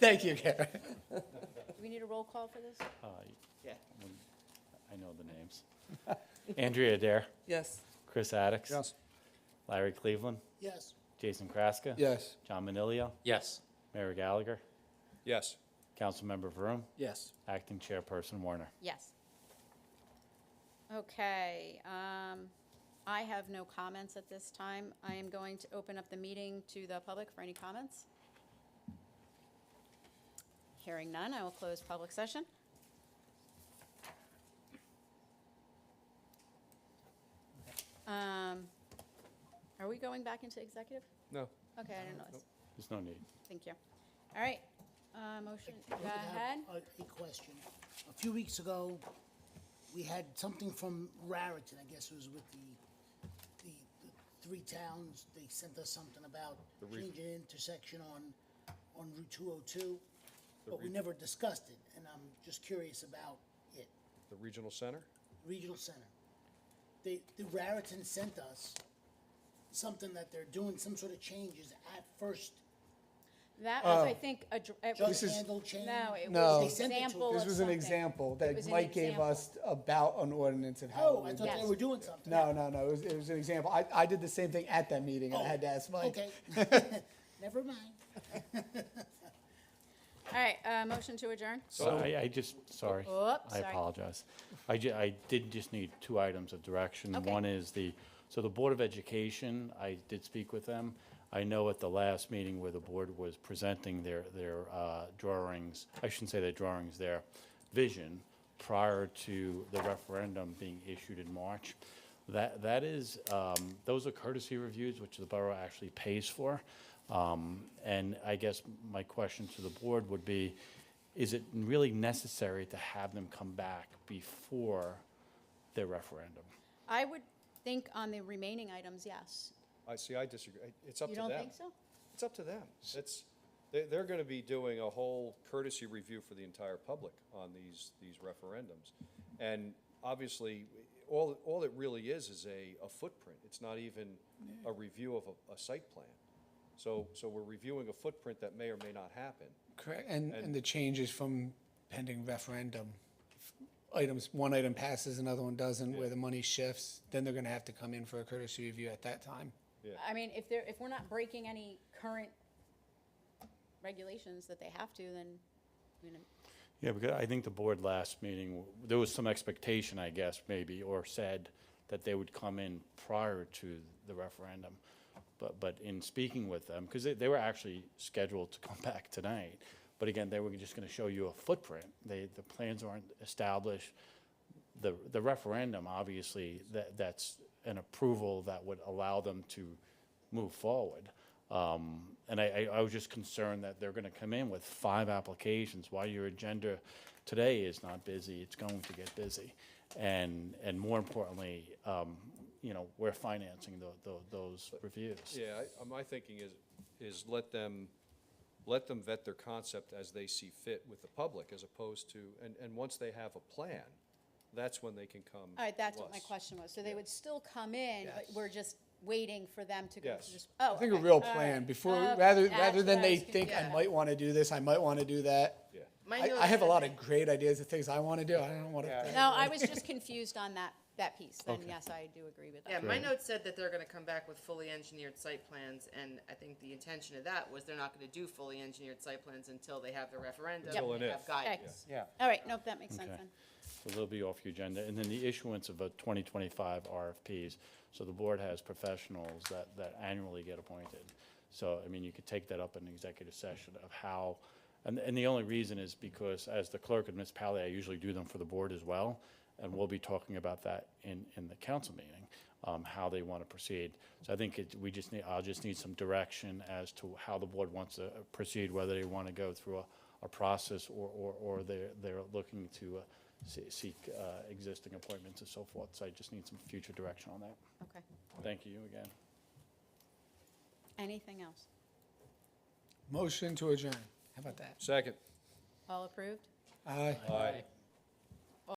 Thank you, Karen. Do we need a roll call for this? Uh, Yeah. when- I know the names. Andrea Adair, Yes. Chris Addicks. Yes. Larry Cleveland, Yes. Jason Kraska. Yes. John Manilio, Yes. Mayor Gallagher, Yes. Councilmember Vroom, Yes. Acting Chairperson Warner. Yes. Okay, um, I have no comments at this time. I am going to open up the meeting to the public for any comments. Hearing none, I will close public session. Um, Are we going back into executive? No. Okay, I didn't know. There's no need. Thank you. All right, uh, motion, go I have ahead. A a question. A few weeks ago, we had something from Raritan, I guess it was with the, the, the three towns. They sent us something about changing intersection on, on Route two oh two, but we never discussed it, and I'm just curious about it. The regional center? Regional Center. They, the Raritan sent us something that they're doing, some sort of changes at first, That was, I think, a. dr- it jug was- handle change. No, it Oh. No. was They an sent it to example us. This of was an something. example It that was an Mike gave example. us about an ordinance of how. Oh, it I was- thought Yes. they were doing something. No, no, no, it was, it was an example. I, I did the same thing at that meeting and I had to ask Oh, Mike. Okay, never mind. All right, uh, motion to adjourn? So I, I just, sorry. Oops, I sorry. apologize. I ju, I did just need two items of direction. Okay. One is the, so the Board of Education, I did speak with them. I know at the last meeting where the board was presenting their, their uh, drawings, I shouldn't say their drawings, their vision prior to the referendum being issued in March. That, that is, um, those are courtesy reviews, which the borough actually pays for. Um, And I guess my question to the board would be, is it really necessary to have them come back before their referendum? I would think on the remaining items, yes. I see, I disagree. I- It's up You to them. don't think so? It's up to them. It's, they're, they're gonna be doing a whole courtesy review for the entire public on these, these referendums. And obviously, all, all it really is, is a, a footprint. It's not even a review of a, a site plan. So, so we're reviewing a footprint that may or may not happen. Correct, and, and the changes from pending referendum. Items, one item passes, another one doesn't, where the money shifts, then they're gonna have to come in for a courtesy review at that time. Yeah. I mean, if they're, if we're not breaking any current regulations that they have to, then, I mean, Yeah, because I think the board last meeting, w- there was some expectation, I guess, maybe, or said that they would come in prior to the referendum. But, but in speaking with them, because they, they were actually scheduled to come back tonight. But again, they were just going to show you a footprint. They, the plans aren't established. The, the referendum, obviously, that, that's an approval that would allow them to move forward. Um, And I, I I was just concerned that they're going to come in with five applications, while your agenda today is not busy, it's going to get busy. And, and more importantly, um, you know, we're financing tho- tho- those reviews. Yeah, I- uh, my thinking is, is let them, let them vet their concept as they see fit with the public, as opposed to, and, and once they have a plan, that's when they can come. all right, that's to what my us. question was. So they would still come in, but Yes. we're just waiting for them to go Yes. to this, oh. I think a okay, real all right. plan, before, Okay, rather, that's rather than what I they was think, I confused might wanna do this, I might wanna do that. Yeah. I, I have a lot of great ideas of things I wanna do, I don't wanna. No, I was just confused on that, that piece. Then, yes, I do agree with that. Yeah, my notes said that they're gonna come back with fully engineered site plans, and I think the intention of that was they're not gonna do fully engineered site plans until they have the referendum. Until and they if. have guidance. Okay. All right, nope, that makes sense Okay. then. So they'll be off your agenda. And then the issuance of a 2025 RFPs. So the board has professionals that, that annually get appointed. So, I mean, you could take that up in executive session of how, and, and the only reason is because as the clerk of municipality, I usually do them for the board as well. And we'll be talking about that in, in the council meeting, um, how they want to proceed. So I think it, we just need, I'll just need some direction as to how the board wants to proceed, whether they want to go through a, a process or, or, or they're, they're looking to, uh, se- seek uh, existing appointments and so forth. So I just need some future direction on that. Okay. Thank you again. Anything else? Motion to adjourn, how about that? Second. All approved? Aye. Aye.